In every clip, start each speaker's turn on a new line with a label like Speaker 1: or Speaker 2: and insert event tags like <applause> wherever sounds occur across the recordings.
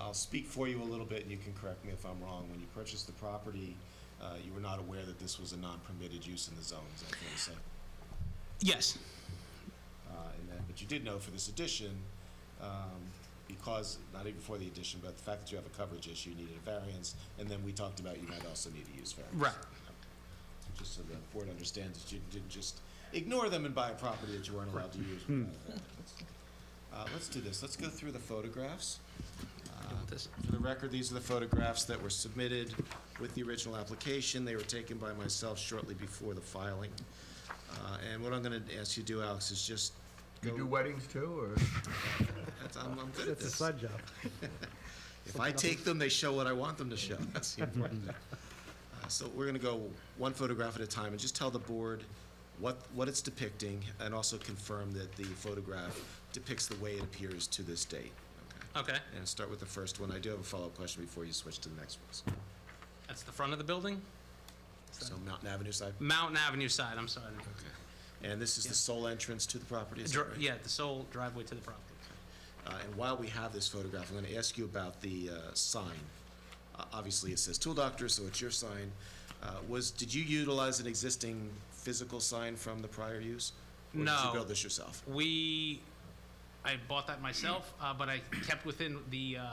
Speaker 1: I'll speak for you a little bit, and you can correct me if I'm wrong. When you purchased the property, uh, you were not aware that this was a non-permitted use in the zone, is that fair to say?
Speaker 2: Yes,
Speaker 1: Uh, And that, but you did know for this addition, um, because, not even for the addition, but the fact that you have a coverage issue, you needed a variance, and then we talked about you might also need a use variance.
Speaker 2: Right.
Speaker 1: So Just so the board understands that you didn't just ignore them and buy a property that you weren't allowed to use. without a variance. Uh, Let's do this, let's go through the photographs.
Speaker 2: this.
Speaker 1: For the record, these are the photographs that were submitted with the original application. They were taken by myself shortly before the filing. Uh, And what I'm going to ask you to do, Alex, is just
Speaker 3: You
Speaker 1: go-
Speaker 3: do weddings too, or?
Speaker 1: That's- I'm, I'm good at
Speaker 4: It's a
Speaker 1: this.
Speaker 4: side job.
Speaker 1: <laughs> If I take them, they show what I want them to show. <laughs> That's the important thing. Uh, So we're gonna go one photograph at a time and just tell the board what, what it's depicting and also confirm that the photograph depicts the way it appears to this date. Okay.
Speaker 2: Okay,
Speaker 1: And start with the first one. I do have a follow-up question before you switch to the next ones.
Speaker 2: that's the front of the building?
Speaker 1: So Mountain Avenue side.
Speaker 2: Mountain Avenue side, I'm sorry.
Speaker 1: And this is the sole entrance to the property, is that
Speaker 2: Dri-
Speaker 1: right?
Speaker 2: Yeah, the sole driveway to the property.
Speaker 1: Uh, And while we have this photograph, I'm going to ask you about the uh, sign. Uh, Obviously, it says Tool Doctor, so it's your sign. Uh, Was, did you utilize an existing physical sign from the prior use? Or did you
Speaker 2: No.
Speaker 1: build this yourself?
Speaker 2: We, I bought that myself, uh, but I kept within the uh,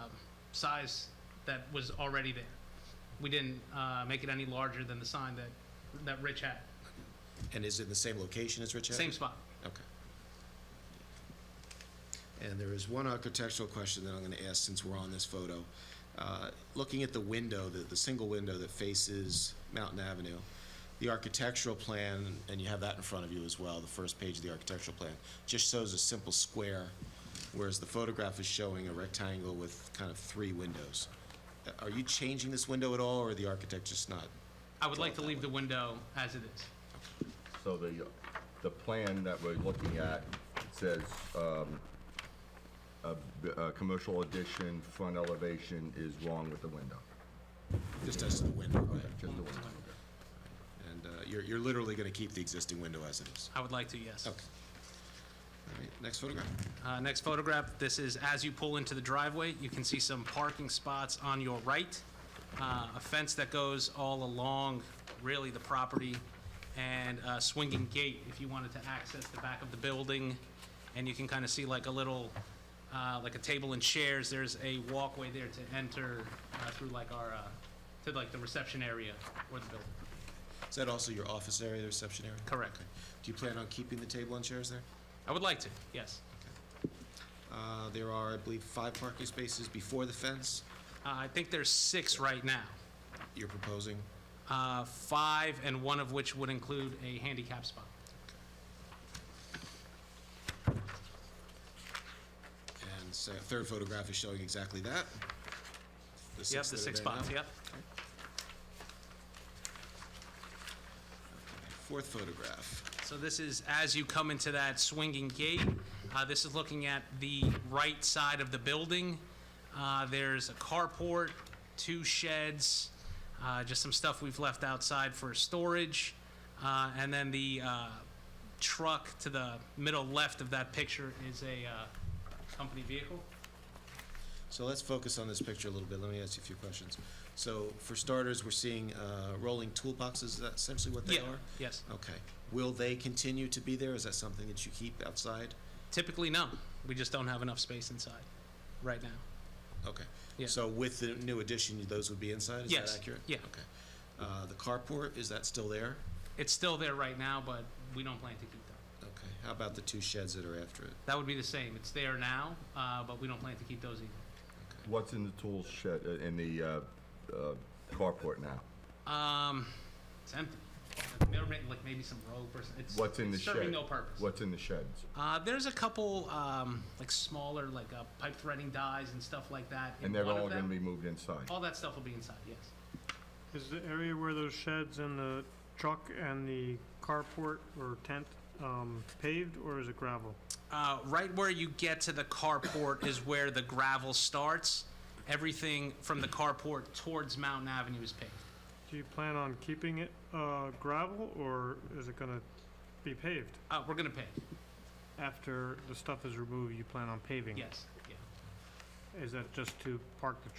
Speaker 2: size that was already there. We didn't uh, make it any larger than the sign that, that Rich had.
Speaker 1: And is it in the same location as Rich Haven?
Speaker 2: Same spot.
Speaker 1: Okay. And there is one architectural question that I'm going to ask since we're on this photo. Uh, Looking at the window, the, the single window that faces Mountain Avenue, the architectural plan, and you have that in front of you as well, the first page of the architectural plan, just shows a simple square, whereas the photograph is showing a rectangle with kind of three windows. Uh, Are you changing this window at all, or the architect just not?
Speaker 2: I would like to leave the window as it is.
Speaker 3: So the, the plan that we're looking at says, um, a, b- a commercial addition, front elevation is wrong with the window.
Speaker 1: Just as to the window, right?
Speaker 3: Just the window.
Speaker 1: And uh, you're, you're literally going to keep the existing window as it is?
Speaker 2: I would like to, yes.
Speaker 1: Okay. All right, next photograph.
Speaker 2: Uh, Next photograph, this is as you pull into the driveway, you can see some parking spots on your right, uh, a fence that goes all along, really, the property, and a swinging gate if you wanted to access the back of the building. And you can kind of see like a little, uh, like a table and chairs, there's a walkway there to enter uh, through like our, uh, to like the reception area or the building.
Speaker 1: Is that also your office area, the reception area?
Speaker 2: Correct.
Speaker 1: Okay. Do you plan on keeping the table and chairs there?
Speaker 2: I would like to, yes.
Speaker 1: Uh, There are, I believe, five parking spaces before the fence
Speaker 2: Uh, I think there's six right now.
Speaker 1: you're proposing.
Speaker 2: uh, five, and one of which would include a handicap spot.
Speaker 1: And so third photograph is showing exactly that.
Speaker 2: Yep, the six spots,
Speaker 1: Yeah.
Speaker 2: yep.
Speaker 1: Fourth photograph.
Speaker 2: So this is as you come into that swinging gate. Uh, This is looking at the right side of the building. Uh, There's a carport, two sheds, uh, just some stuff we've left outside for storage. Uh, And then the uh, truck to the middle left of that picture is a uh, company vehicle.
Speaker 1: So let's focus on this picture a little bit. Let me ask you a few questions. So for starters, we're seeing uh, rolling toolboxes, is that essentially what they
Speaker 2: Yeah,
Speaker 1: are?
Speaker 2: yes.
Speaker 1: Okay. Will they continue to be there? Is that something that you keep outside?
Speaker 2: Typically, no. We just don't have enough space inside right now.
Speaker 1: Okay.
Speaker 2: Yeah.
Speaker 1: So with the new addition, those would be inside, is
Speaker 2: Yes,
Speaker 1: that accurate?
Speaker 2: yeah.
Speaker 1: Okay. Uh, the carport, is that still there?
Speaker 2: It's still there right now, but we don't plan to keep that.
Speaker 1: Okay. How about the two sheds that are after it?
Speaker 2: That would be the same. It's there now, uh, but we don't plan to keep those either.
Speaker 3: What's in the tool shed, uh, in the, uh, uh, carport now?
Speaker 2: Um, it's empty. They're ma- like maybe some rope or something. It's,
Speaker 3: What's in the
Speaker 2: it's
Speaker 3: shed?
Speaker 2: serving no purpose.
Speaker 3: What's in the sheds?
Speaker 2: Uh, there's a couple um, like smaller like uh, pipe threading dies and stuff like that. in
Speaker 3: And they're
Speaker 2: one of
Speaker 3: all gonna
Speaker 2: them.
Speaker 3: be moved inside?
Speaker 2: All that stuff will be inside. Yes.
Speaker 5: Is the area where those sheds and the truck and the carport or tent um, paved, or is it gravel?
Speaker 2: Uh, right where you get to the carport is where the gravel starts. Everything from the carport towards Mountain Avenue is paved.
Speaker 5: Do you plan on keeping it uh, gravel, or is it gonna be paved?
Speaker 2: Uh, we're gonna pave. Mm-hmm.
Speaker 5: After the stuff is removed, you plan on paving? it?
Speaker 2: Yes. Yeah.
Speaker 5: is that just to park the